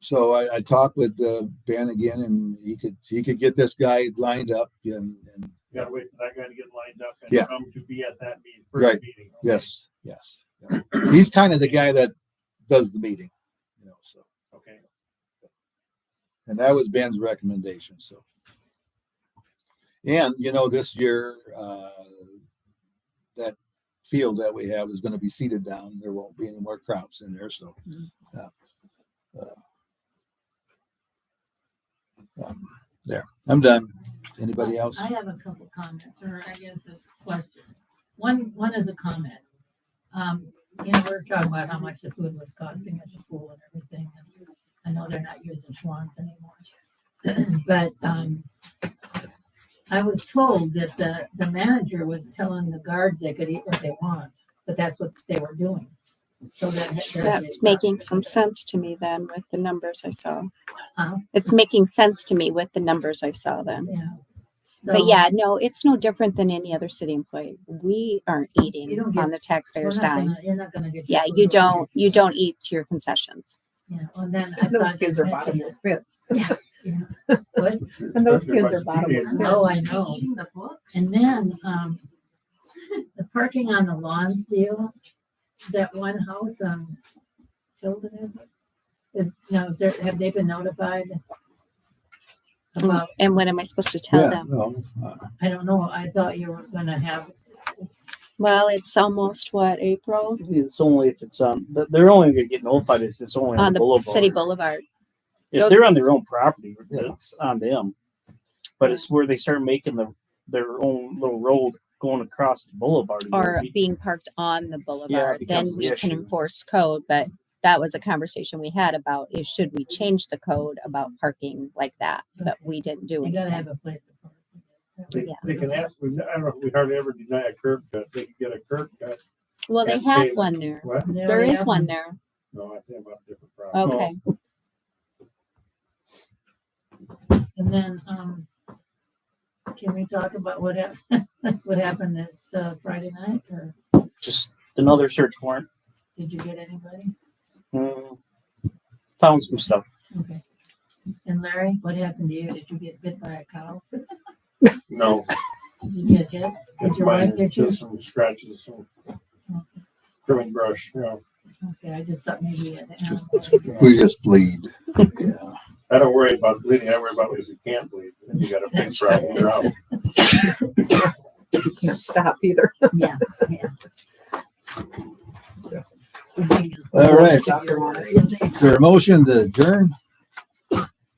so I, I talked with uh, Ben again, and he could he could get this guy lined up. And, and You gotta wait for that guy to get lined up Yeah. and come to be at that meeting, Right. first meeting. yes, yes, yeah. he's kind of the guy that does the meeting, you know. So, Okay, and that was Ben's recommendation. So, and you know, this year uh, that field that we have is going to be seeded down. There won't be any more crops in there. So, Mhm. uh, uh, um, there, I'm done. Anybody else? I have a couple comments, or I guess a question. One, one is a comment. Um, you know, we're talking about how much the food was costing at the pool and everything. and I know they're not using Schwans anymore. But, um, I was told that the, the manager was telling the guards they could eat what they want, but that's what they were doing. So that. That's making some sense to me then with the numbers I saw. Huh? It's making sense to me with the numbers I saw then. Yeah. But So- yeah, no, it's no different than any other city employee. We aren't eating don't on get- the We're taxpayer's not dime. gonna- You're not gonna get. your Yeah, food you away. don't, you don't eat your concessions. Yeah, well, then I Those thought. kids you are mentioned bottomless pits. it would. And those Especially kids are by bottomless teenagers. pits. Oh, I know. The books. And then, um, the parking on the lawns deal, that one house on Tilden, is it? Is, now, is there, have they been notified? About, And what am I supposed to tell them? no, uh, I don't know, I thought you were gonna have, Well, it's almost what, April? It's only if it's um, th- they're only gonna get notified if it's only On the boulevard. city boulevard. If those- they're on their own property, Yeah. it's on them. But it's where they start making the their own little road going across the boulevard. or being parked on the boulevard, then becomes the we can issue. enforce code, but that was a conversation we had about is should we change the code about parking like that, but we didn't do you gotta it. have a place. to park. They, Yeah. they can ask, we, I don't know, if we hardly ever deny a curb cut, they can get a curb cut, Well, they and have pay- one there. what? They There already is have one there. No, I think about different Oh, property. Okay. And then, um, can we talk about what hap- what happened this uh, Friday night, or just another search warrant. did you get anybody? Mm, found some stuff. Okay. And Larry, what happened to you? Did you get bit by a cow? Oh. No, Did you get hit? Did it's your wife minor, get you? just some scratches, some trimming brush, you know, Okay, I just thought maybe it. Just- happened. we just bleed. Yeah. I don't worry about bleeding, I worry about if you can't bleed, if you got a big problem, you're out. You can't stop either. Yeah. All right. Stop your water. Is there a motion to adjourn?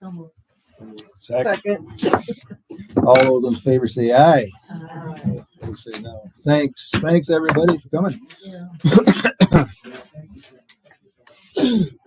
Almost, Second. All those in favor say aye. uh, Those say no. Thanks. Thanks, everybody, for coming. yeah.